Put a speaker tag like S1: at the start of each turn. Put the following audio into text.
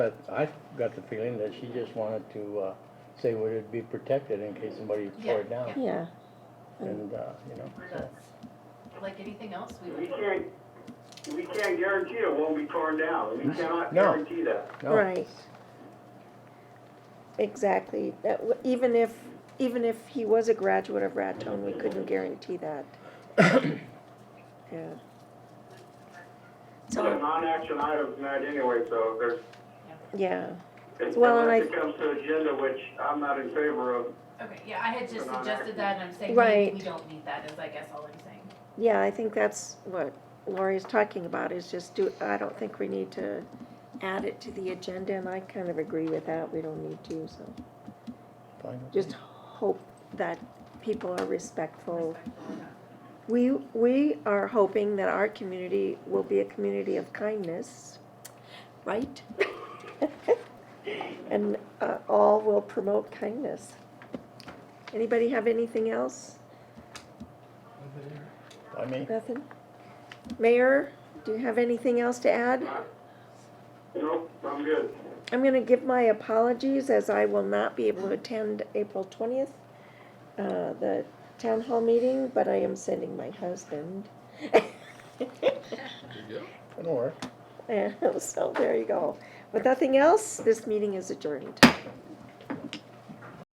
S1: But I got the feeling that she just wanted to uh, say would it be protected in case somebody
S2: Yeah,
S1: tore it down.
S3: Yeah,
S1: And, uh, you know, so,
S2: That's, like anything else, we
S4: We
S2: would,
S4: can't, we can't guarantee it won't be torn down. We cannot
S1: No.
S4: guarantee that.
S1: no.
S3: right. Exactly, that, w- even if, even if he was a graduate of Raton, we couldn't guarantee that. Yeah.
S4: It's a
S3: So,
S4: non-action item tonight anyway, so there's,
S3: yeah,
S4: it's-
S3: Well, and
S4: unless
S3: I-
S4: it comes to agenda, which I'm not in favor of,
S2: okay, yeah, I had just
S4: Put on
S2: suggested
S4: active.
S2: that, and I'm saying
S3: Right.
S2: we, we don't need that, is I guess all I'm saying.
S3: yeah, I think that's what Lori's talking about, is just do, I don't think we need to add it to the agenda, and I kind of agree with that, we don't need to, so.
S1: fine.
S3: Just hope that people are respectful
S2: Respectful of that.
S3: We, we are hoping that our community will be a community of kindness, right? And uh, all will promote kindness. Anybody have anything else?
S1: I mean,
S3: Nothing? Mayor, do you have anything else to add?
S4: nope, I'm good.
S3: I'm going to give my apologies as I will not be able to attend April 20th, uh, the town hall meeting, but I am sending my husband.
S1: it'll work.
S3: Yeah, so there you go. With nothing else, this meeting is adjourned.